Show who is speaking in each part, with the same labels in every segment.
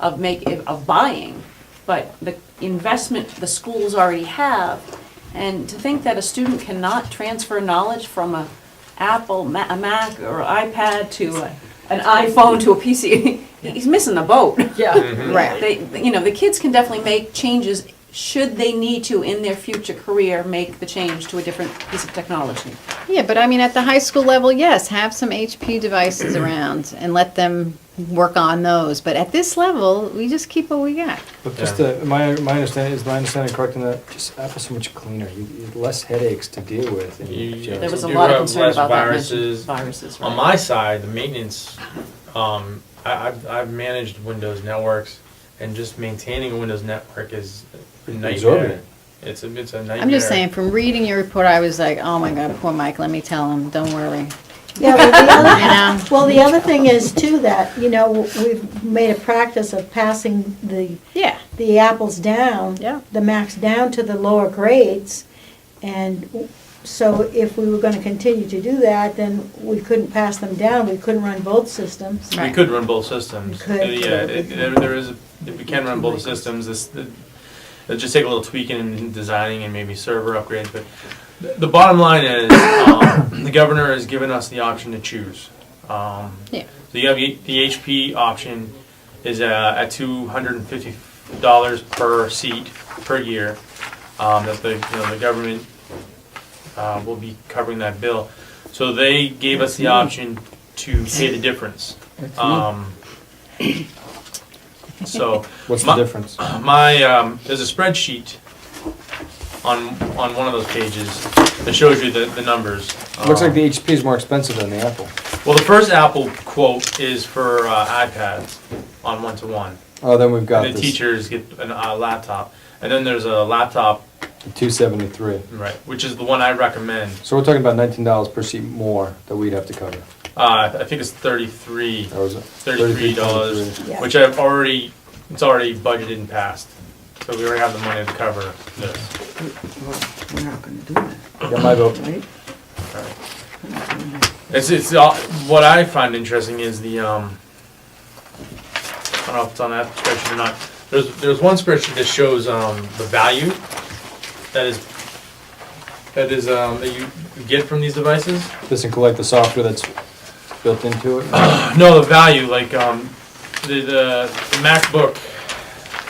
Speaker 1: of make, of buying, but the investment the schools already have. And to think that a student cannot transfer knowledge from a Apple, Ma- a Mac, or iPad to a- an iPhone to a PC, he's missing the boat. Mm-hmm.
Speaker 2: Yeah.
Speaker 3: Right.
Speaker 1: They, you know, the kids can definitely make changes, should they need to in their future career, make the change to a different piece of technology.
Speaker 3: Yeah, but I mean, at the high school level, yes, have some HP devices around and let them work on those. But at this level, we just keep what we got.
Speaker 4: But just the, my, my understanding, is my understanding correct in that just Apple's so much cleaner, you, you have less headaches to deal with. and
Speaker 5: You-
Speaker 4: just-
Speaker 1: There was a
Speaker 5: You
Speaker 1: lot of
Speaker 5: have
Speaker 1: concern
Speaker 5: less
Speaker 1: about that. mentioned.
Speaker 5: viruses.
Speaker 1: Viruses,
Speaker 5: On
Speaker 1: right.
Speaker 5: my side, the maintenance, um, I, I've, I've managed Windows networks, and just maintaining a Windows network is a nightmare.
Speaker 4: Exorbitant.
Speaker 5: It's a, it's a nightmare.
Speaker 3: I'm just saying, from reading your report, I was like, oh my God, poor Mike, let me tell him, don't worry.
Speaker 6: Yeah, well, the
Speaker 3: You know?
Speaker 6: other, well, the other thing is too that, you know, we've made a practice of passing the,
Speaker 3: Yeah.
Speaker 6: the apples down.
Speaker 3: Yeah.
Speaker 6: The max down to the lower grades. And w- so if we were gonna continue to do that, then we couldn't pass them down, we couldn't run both systems.
Speaker 3: Right.
Speaker 5: We could run both systems.
Speaker 6: We could.
Speaker 5: Uh, Yeah, it- there, there is, we can run both systems, this, the- it'll just take a little tweaking and designing and maybe server upgrades, but the- the bottom line is, um, the governor has given us the option to choose. Um,
Speaker 3: Yeah.
Speaker 5: So you have the the HP option is uh, at two hundred and fifty dollars per seat per year. Um, that the you know the government uh, will be covering that bill. So they gave us the option to pay the difference. Um, so
Speaker 4: What's the
Speaker 5: My-
Speaker 4: difference?
Speaker 5: my um, there's a spreadsheet on on one of those pages that shows you the, the numbers.
Speaker 4: Looks like
Speaker 5: Um,
Speaker 4: the HP is more expensive than the Apple.
Speaker 5: well, the first Apple quote is for uh, iPads on one to one.
Speaker 4: Oh, then we've got
Speaker 5: The
Speaker 4: this,
Speaker 5: teachers get a uh, laptop, and then there's a laptop,
Speaker 4: two seventy-three.
Speaker 5: right, which is the one I recommend.
Speaker 4: So we're talking about nineteen dollars per seat more that we'd have to cover.
Speaker 5: Uh, I think it's thirty-three,
Speaker 4: That was it.
Speaker 5: thirty-three dollars,
Speaker 4: $33.
Speaker 6: Yeah.
Speaker 5: which I've already, it's already budgeted and passed. So we already have the money to cover this.
Speaker 7: Well, we're not gonna do that,
Speaker 4: Yeah, my vote.
Speaker 7: right?
Speaker 5: It's it's all, what I find interesting is the um. I don't know if it's on that spreadsheet or not. There's there's one spreadsheet that shows um the value that is that is um that you get from these devices.
Speaker 4: Doesn't collect the software that's built into it.
Speaker 5: No, the value like um the the, the MacBook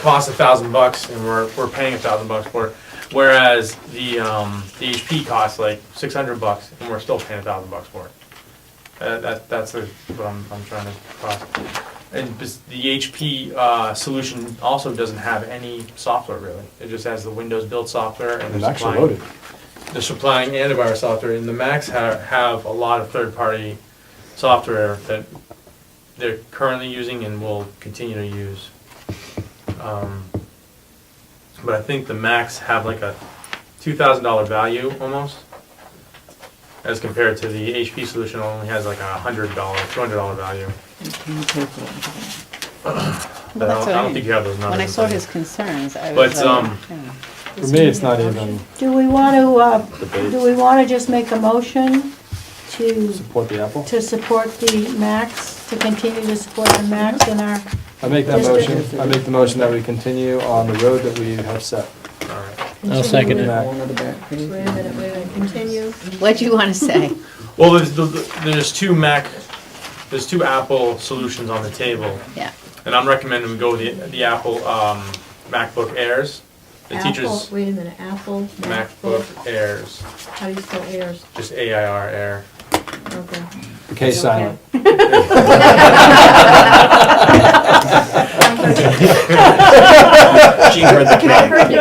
Speaker 5: costs a thousand bucks and we're we're paying a thousand bucks for it. Whereas the um the HP costs like six hundred bucks and we're still paying a thousand bucks for it. Uh, that that's the, what I'm I'm trying to cross. And bes- the HP uh, solution also doesn't have any software really. It just has the Windows built software and
Speaker 4: It's
Speaker 5: they're
Speaker 4: actually
Speaker 5: supplying-
Speaker 4: loaded.
Speaker 5: they're supplying antivirus software, and the Macs ha- have a lot of third-party software that they're currently using and will continue to use. Um, but I think the Macs have like a two thousand dollar value almost, as compared to the HP solution only has like a hundred dollar, two hundred dollar value.
Speaker 7: We can't pay for it.
Speaker 5: But I
Speaker 3: that's
Speaker 5: don't,
Speaker 3: what
Speaker 5: I
Speaker 3: I
Speaker 5: don't
Speaker 3: mean.
Speaker 5: think you have those numbers.
Speaker 3: When I saw
Speaker 5: like-
Speaker 3: his concerns, I
Speaker 5: But,
Speaker 3: was
Speaker 5: um,
Speaker 3: like, yeah.
Speaker 4: For me, it's not even
Speaker 6: Do we wanna, uh,
Speaker 4: Debate.
Speaker 6: do we wanna just make a motion to,
Speaker 4: support the Apple.
Speaker 6: to support the max, to continue to support the max in our,
Speaker 4: I make that
Speaker 6: Just a-
Speaker 4: motion, I make the motion that we continue on the road that we have set.
Speaker 5: All right.
Speaker 8: I'll second it.
Speaker 4: Mac.
Speaker 7: Go into the back page.
Speaker 6: wait a minute, wait a minute, continue.
Speaker 3: What do you want to say?
Speaker 5: Well, there's, the- the- there's two Mac, there's two Apple solutions on the table.
Speaker 3: Yeah.
Speaker 5: And I'm recommending we go with the, the Apple um, MacBook Airs. The teachers
Speaker 6: Apple, wait a minute, Apple,
Speaker 5: MacBook Airs,
Speaker 6: how do you spell airs?
Speaker 5: just AIR Air.
Speaker 6: Okay.
Speaker 4: Okay, silent.
Speaker 9: I heard the pain,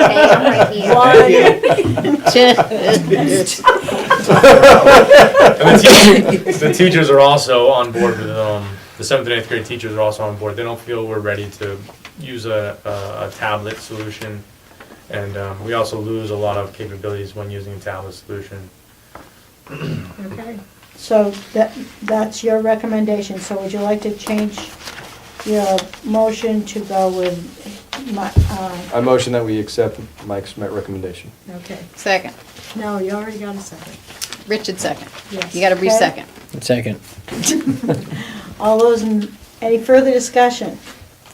Speaker 9: I'm right here.
Speaker 5: And the, teacher, the teachers are also on board with um, the seventh and eighth grade teachers are also on board. They don't feel we're ready to use a, a, a tablet solution, and um, we also lose a lot of capabilities when using a tablet solution.
Speaker 6: Okay, so that, that's your recommendation, so would you like to change your motion to go with my, uh,
Speaker 4: I motion that we accept Mike's recommendation.
Speaker 6: okay,
Speaker 3: Second.
Speaker 6: no, you already got a second.
Speaker 3: Richard, second.
Speaker 6: Yes.
Speaker 3: You got to re-second.
Speaker 8: Second.
Speaker 6: All those, in any further discussion?